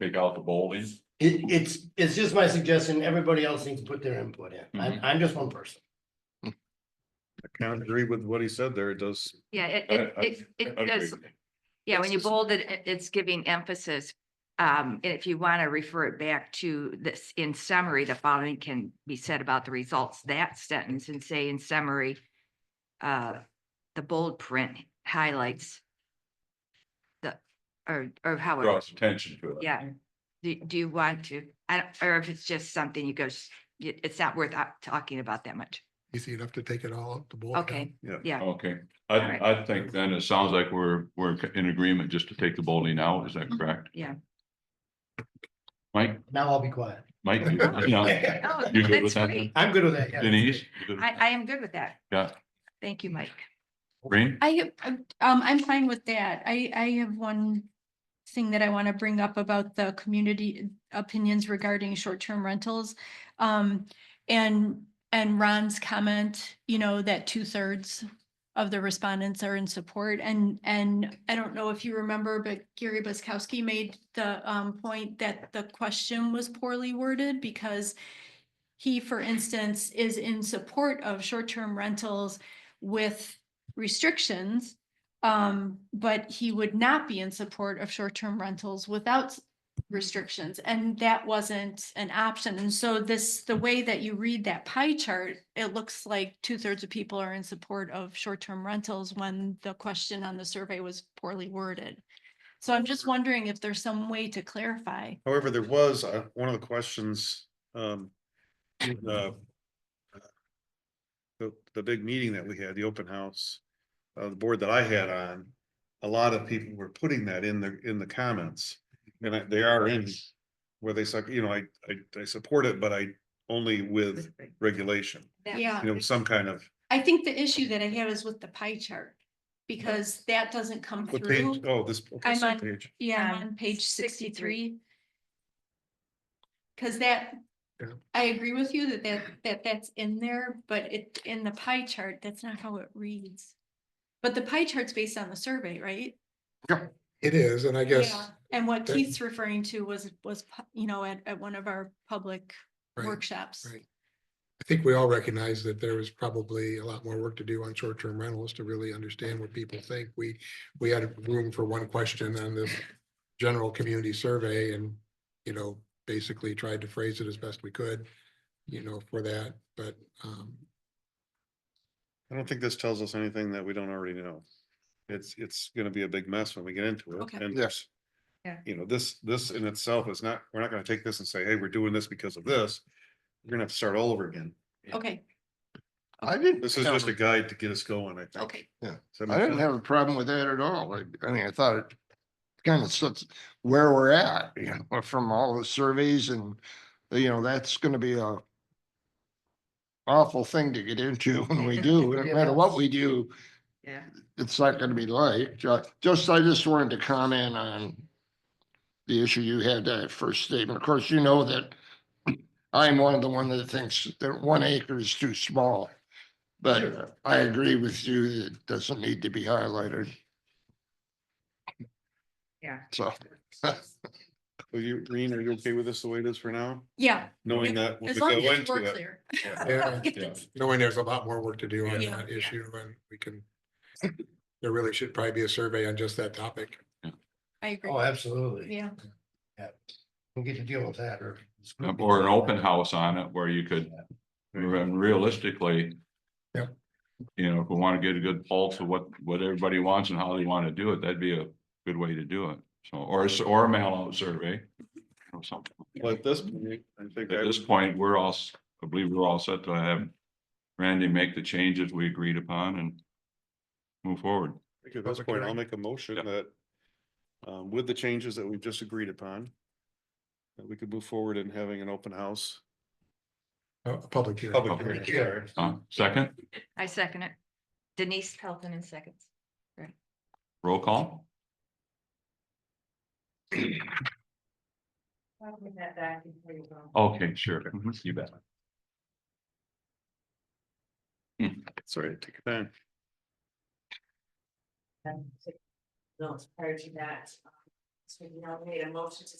take out the bowling. It, it's, it's just my suggestion. Everybody else needs to put their input in. Mm-hmm. I'm, I'm just one person. I kind of agree with what he said there. It does. Yeah, it, I- it, I- it, it I agree does, with you. yeah, when you It's just- bold it, it- it's giving emphasis. Um, and if you want to refer it back to this, in summary, the following can be said about the results, that sentence and say in summary. Uh, the bold print highlights. The, or, or however, Draws attention to it. yeah. Do, do you want to, I, don't- or if it's just something you go, s- it- it's not worth uh, talking about that much. Easy enough to take it all out the bowl. Okay, Okay, Alright. I, I think then it sounds like we're, we're in agreement just to take the bowling out, is Mm-hmm. that correct? Yeah. Mike, Now I'll be quiet. Mike, you- no, oh, You good with that's that? great. I'm good with that. yeah. Denise? you good? I, I am good with that. Yeah, Thank you, Mike. Rain, I, um, I'm fine with that. I, I have one thing that I want to bring up about the community opinions regarding short-term rentals. Um, and, and Ron's comment, you know, that two-thirds of the respondents are in support. And, and I don't know if you remember, but Gary Buskowski made the, um, point that the question was poorly worded because he, for instance, is in support of short-term rentals with restrictions. Um, but he would not be in support of short-term rentals without s- restrictions, and that wasn't an option. And so this, the way that you read that pie chart, it looks like two-thirds of people are in support of short-term rentals when the question on the survey was poorly worded. So I'm just wondering if there's some way to clarify. However, there was, uh, one of the questions, um, in the uh, the, the big meeting that we had, the open house, uh, the board that I had on, a lot of people were putting that in the, in the comments. And I- they are in where they suck, you know, I, I, I support it, but I only with regulation, Yeah. you know, some kind of. I think the issue that I had is with the pie chart, because that doesn't come What page? through. Oh, this. okay, I'm some on- page. Yeah, Um, on page 63. sixty-three. Cause that, Yeah. I agree with you that that, that that's in there, but it, in the pie chart, that's not how it reads. But the pie chart's based on the survey, right? It is, and I Yeah. guess, And what that- Keith's referring to was, was, pu- you know, at, at one of our public right, workshops. right. I think we all recognize that there was probably a lot more work to do on short-term rentals to really understand what people think. We, we had room for one question on this general community survey and, you know, basically tried to phrase it as best we could, you know, for that, but, um, I don't think this tells us anything that we don't already know. It's, it's gonna be a big mess when we get into it. Okay. And Yes. Yeah. You know, this, this in itself is not, we're not gonna take this and say, hey, we're doing this because of this. We're gonna have to start all over again. Okay, I didn't. This is have just a a- guide to get us going, I think. okay. Does that make I didn't sense? have a problem with that at all. I, I mean, I thought it kind of sets where we're at, you know, from all the surveys and, you know, that's gonna be a awful thing to get into when we do, no matter what we do, Yeah. it's not gonna be light. Ju- Just, I just wanted to comment on the issue you had that first statement. Of course, you know that I'm one of the one that thinks that one acre is too small. But I agree with you, that it doesn't need to be highlighted, Yeah. so. Are you, Reen, are you okay with this the way it is for now? Yeah, Knowing If- that. when as we long go as it's into more it, clear. yeah. yeah, Yeah. knowing there's a lot more work to do on Yeah. that issue and we can, there really should probably be a survey on just that topic. I agree. Oh, absolutely. Yeah, We'll get to deal with that or. or an open house on it where you could, and realistically. Yep. You know, if we want to get a good pulse of what, what everybody wants and how they want to do it, that'd be a good way to do it. So, or, a s- or a mail out survey. Or something. Well, at this point, I think I At this was, point, we're all, s- I believe we're all set to have Randy make the changes we agreed upon and move forward. at this Public point, I'll hearing. make a motion Yeah. that um, with the changes that we've just agreed upon, that we could move forward in having an open house. A a public hearing. Public Public hearing, sorry. Uh, second, I second it. Denise Pelton in seconds. roll call? Okay, sure. Mhm, You bet. Sorry, take it down. No, it's prior to that. um, So you now made a motion to